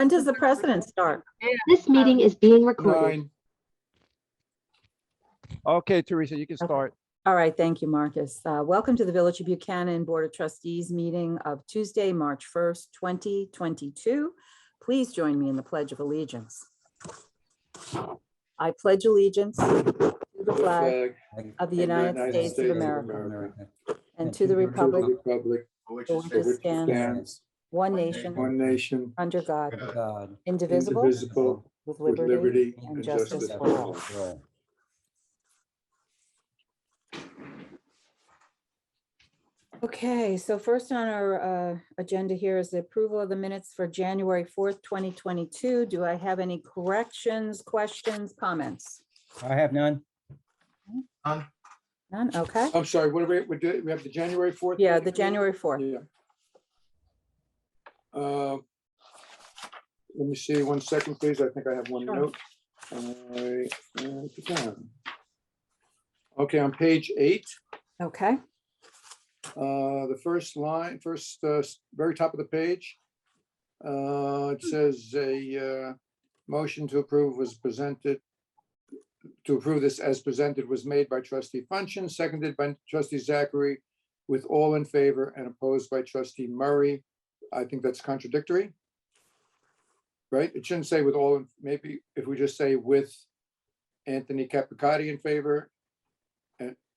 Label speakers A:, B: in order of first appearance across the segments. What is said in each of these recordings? A: When does the president start?
B: This meeting is being recorded.
C: Nine. Okay, Teresa, you can
A: Okay.
C: start.
A: All right, thank you, Marcus. Uh, Welcome to the Village of Buchanan Board of Trustees meeting of Tuesday, March 1st, 2022. Please join me in the Pledge of Allegiance. I pledge allegiance to the flag of the United States of America and to the republic
C: Republic,
A: for which it stands, one nation,
C: one nation,
A: under God,
D: God.
A: indivisible,
C: indivisible,
A: with
C: with
A: liberty.
C: liberty
A: and
C: and
A: justice
C: justice
A: for all. Okay, so first on our uh, agenda here is the approval of the minutes for January 4th, 2022. Do I have any corrections, questions, comments?
D: I have none.
A: None, okay.
C: I'm sorry, what do we, we do, we have the January fourth?
A: Yeah, the January 4th.
C: Yeah. Uh, Let me see, one second, please. I think I have one
A: Sure.
C: note. I, uh, began. Okay, on page eight,
A: Okay,
C: uh, the first line, first, uh, s- very top of the page. uh, It says a uh, motion to approve was presented. To approve this as presented was made by trustee Funchin, seconded by trustee Zachary, with all in favor and opposed by trustee Murray. I think that's contradictory. Right? It shouldn't say with all, in- maybe if we just say with Anthony Capicotti in favor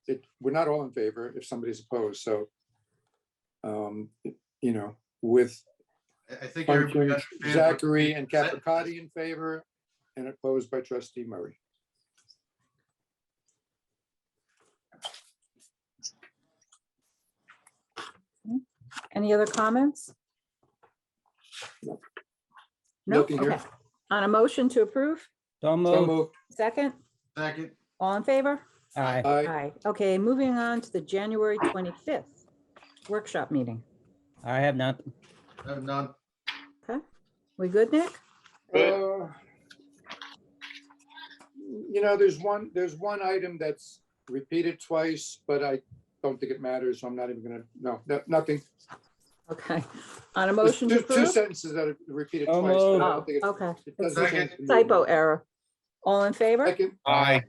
C: it, we're not all in favor if somebody's opposed, so. Um, you know, with
E: I- I think everybody
C: Funkin,
E: understands. what-
C: Zachary and
E: Is that-
C: Capricotti in favor and opposed by trustee Murray.
A: any other comments?
C: Nope.
A: No,
C: Nothing here.
A: okay. On a motion to approve,
D: Don't
C: So
D: move.
C: moved.
A: second,
E: Second,
A: all in favor?
D: Aye.
C: Aye.
A: Aye. Okay, moving on to the January 25th workshop meeting.
D: I have none.
E: uh, none,
A: We good, Nick?
C: Uh, You know, there's one, there's one item that's repeated twice, but I don't think it matters, so I'm not even gonna, no, no- nothing.
A: Okay, on a
C: There's
A: motion to
C: two- Two
A: approve?
C: sentences that are repeated
D: So
C: twice. but I don't
A: moved.
C: think it-
A: Oh, okay.
C: it doesn't change the
A: Typo
C: meaning.
A: error. All in favor?
C: Second,
D: Aye.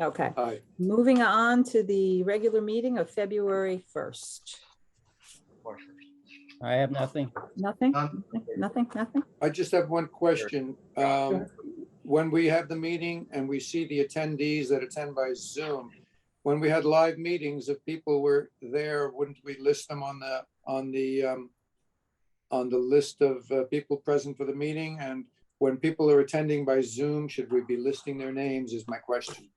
A: Okay,
C: aye.
A: moving on to the regular meeting of February 1st.
D: I have nothing.
A: Nothing,
E: none.
A: nothing, nothing?
C: I just have one question. Um, When we have the meeting and we see the attendees that attend by Zoom, when we had live meetings, if people were there, wouldn't we list them on the, on the, um, on the list of uh, people present for the meeting? And when people are attending by Zoom, should we be listing their names is my question.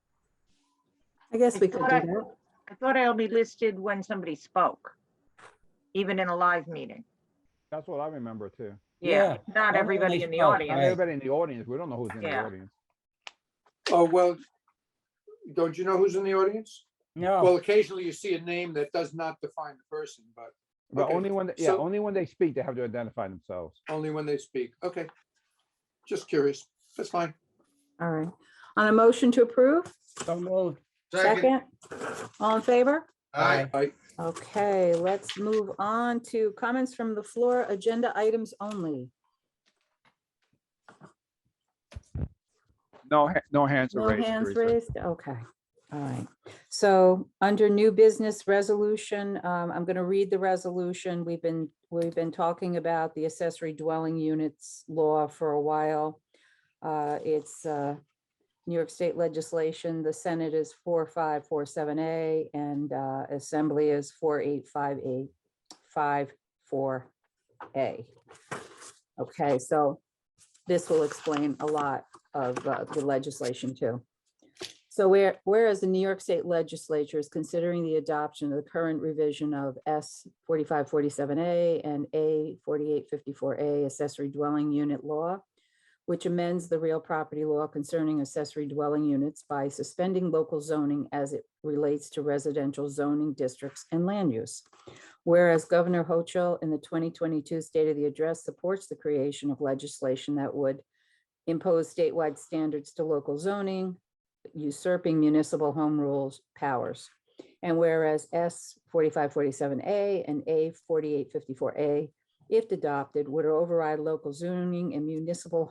A: I guess we could do
F: I-
A: that.
F: I thought I only listed when somebody spoke, even in a live meeting.
G: That's what I remember too.
F: Yeah, not
D: only
F: everybody in the
D: spoke,
G: And
D: Right.
F: audience.
G: everybody in the audience, we don't know who's in the
F: Yeah.
G: audience.
C: Oh, well, don't you know who's in the audience? Well,
D: No,
C: occasionally you see a name that does not define the person, but
G: But
C: Okay,
G: only when, yeah,
C: so-
G: only when they speak, they have to identify themselves.
C: only when they speak. Okay. Just curious. That's fine.
A: All right, on a motion to approve,
D: don't move.
E: Second,
A: second? All in favor?
E: aye,
C: I,
A: Okay, let's move on to comments from the floor, agenda items only.
G: No, ha- no hands are
A: No
G: raised.
A: hands
G: Teresa.
A: raised, okay, all right. So under new business resolution, um, I'm gonna read the resolution. We've been, we've been talking about the accessory dwelling units law for a while. Uh, it's, uh, New York State legislation, the Senate is four, five, four, seven, A, and, uh, Assembly is four, eight, five, eight, five, four, A. Okay, so this will explain a lot of uh, the legislation too. So where, whereas the New York State Legislature is considering the adoption of the current revision of S forty-five forty-seven A and A forty-eight fifty-four A accessory dwelling unit law, which amends the real property law concerning accessory dwelling units by suspending local zoning as it relates to residential zoning districts and land use. Whereas Governor Hochul in the twenty twenty-two State of the Address supports the creation of legislation that would impose statewide standards to local zoning, usurping municipal home rules powers. And whereas S forty-five forty-seven A and A forty-eight fifty-four A if adopted, would override local zoning and municipal